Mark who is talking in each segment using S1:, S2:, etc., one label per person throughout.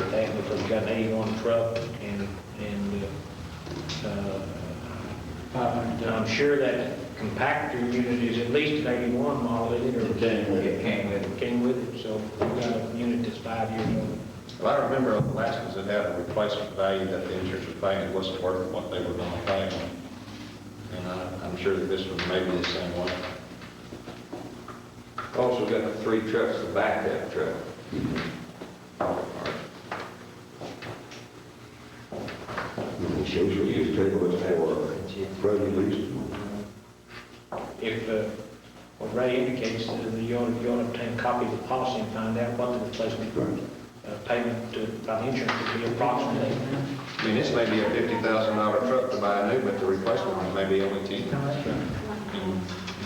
S1: We've got an eighty-one truck and, and, uh, and I'm sure that compactor unit is at least an eighty-one model, isn't it?
S2: It came with it.
S1: It came with it. Came with it, so we've got a unit that's five years old.
S3: Well, I remember on the last ones, it had a replacement value that the insurance was paying, it wasn't worth what they were gonna pay. And I- I'm sure that this one may be the same way.
S4: Also got three trucks to back that truck.
S2: It shows you use table as for road release.
S1: If, uh, what Ray indicates, that the- you'll, you'll obtain a copy of the policy and find out what the replacement
S2: Right.
S1: uh, payment to, by the insurance would be approximately.
S3: I mean, this may be a fifty thousand dollar truck to buy new, but the replacement one may be only ten.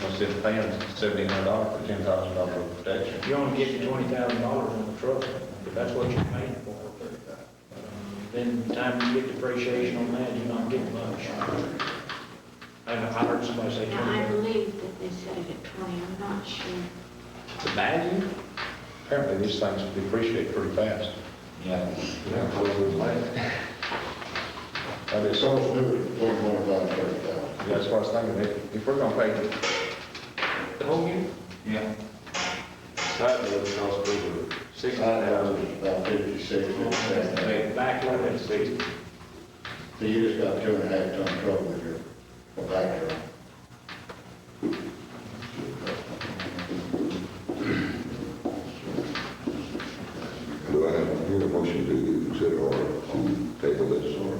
S3: Instead of paying seventeen hundred dollars for ten thousand dollar protection.
S1: You're only getting twenty thousand dollars on the truck, if that's what you're paying for. Um, Then the time you get depreciation on that, you're not getting much. I I heard somebody say
S5: Now, I
S1: twenty.
S5: believe that they said it at 20, I'm not sure.
S3: The value? Apparently, these things depreciate pretty fast.
S4: Yeah.
S2: That's what it was like.
S3: That is,
S2: So, one more about thirty thousand.
S3: yeah, that's what I was thinking, if, if we're gonna pay
S1: The whole unit?
S4: Yeah. Side load cost over six
S2: Side houses is about fifty-six, uh, fifty-seven.
S1: Back load
S4: hundred
S1: at
S4: and sixty.
S2: So you just got two and a half ton truck with your, a back truck.
S6: Do I have, hear a motion to consider or to table this or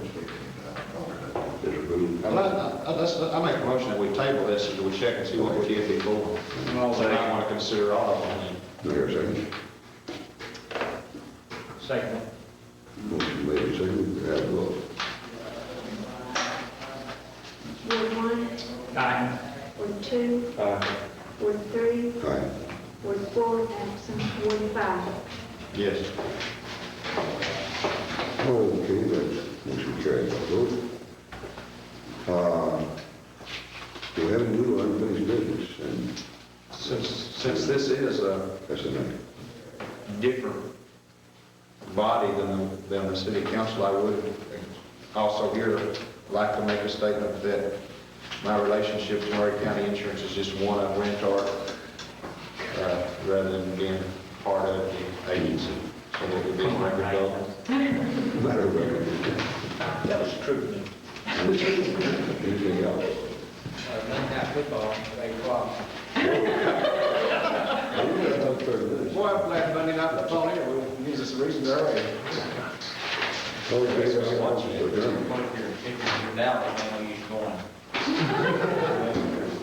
S6: is approved?
S3: Well, I, I, that's- I make a motion that we table this and we check and see what we did before.
S4: I'll
S3: So I want to consider all of them.
S6: Do I hear a second?
S1: Second.
S6: Motion made and seconded, have a vote.
S5: Ward one,
S1: Aye.
S5: Ward two, Ward three,
S6: Aye.
S5: Ward four, absent, Ward five.
S3: Yes.
S6: Okay, that motion carries by vote. Uh, Do we have any new unfinished business? And
S3: Since, since this is a
S6: that's a name.
S3: different body than, the- than the city council, I would also here like to make a statement that my relationship to Murray County Insurance is just one of Rentar, uh, rather than being part of the agency. So that would be a record of.
S6: Matter of record.
S1: That was true.
S6: Anything else? We got no further business.
S3: Boy, I'm glad Monday night was on here, we used this reason earlier.
S6: All in favor, say aye. We're done.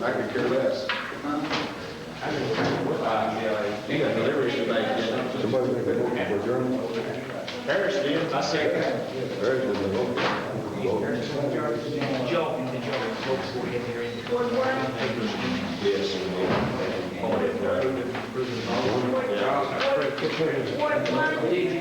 S3: I could care less. You got deliveries to make, yeah.
S6: Somebody make a motion for adjournment?
S3: Harris did, I second.
S6: There's the motion.
S5: Ward one,
S3: Yes.
S5: Ward one,